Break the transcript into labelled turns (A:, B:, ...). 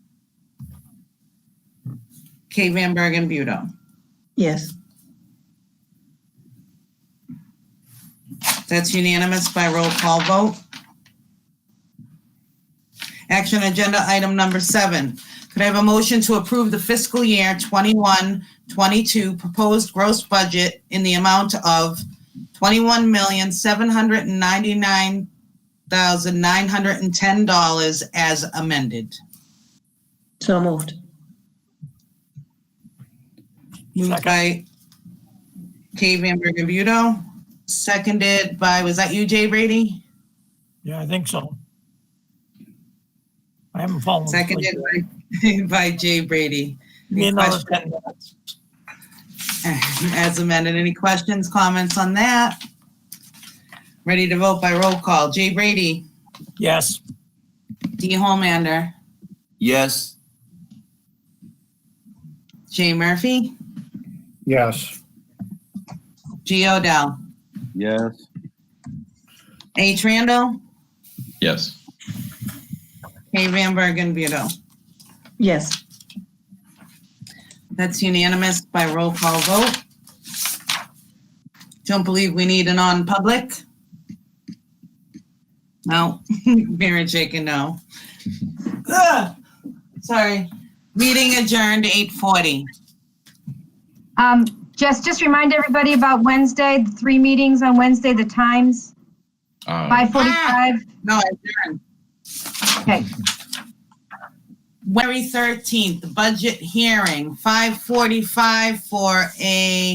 A: Kate Van Bergen Budo.
B: Yes.
A: That's unanimous by roll call vote. Action agenda item number seven. Could I have a motion to approve the fiscal year 21-22 proposed gross budget in the amount of twenty-one million, seven hundred and ninety-nine thousand, nine hundred and ten dollars as amended?
B: So moved.
A: Moved by Kay Van Bergen Budo, seconded by, was that you, Jay Brady?
C: Yeah, I think so. I haven't fallen asleep.
A: Seconded by, by Jay Brady.
C: Give me another
A: Question.
C: 10 minutes.
A: As amended, any questions, comments on that? Ready to vote by roll call. Jay Brady,
C: Yes,
A: Dee Holmander,
D: Yes,
A: Jay Murphy,
E: Yes.
A: G. Odell,
D: yes,
A: H. Randall,
F: Yes.
A: Kay Van Bergen Budo.
B: Yes.
A: That's unanimous by roll call vote. Don't believe we need a non-public? No, Maren shaking no. Ugh, Sorry. Meeting adjourned eight forty.
G: Um, just, just remind everybody about Wednesday, the three meetings on Wednesday, the times,
F: Um,
G: five forty-five.
A: No, adjourned.
G: Okay,
A: January thirteenth, budget hearing, five forty-five for a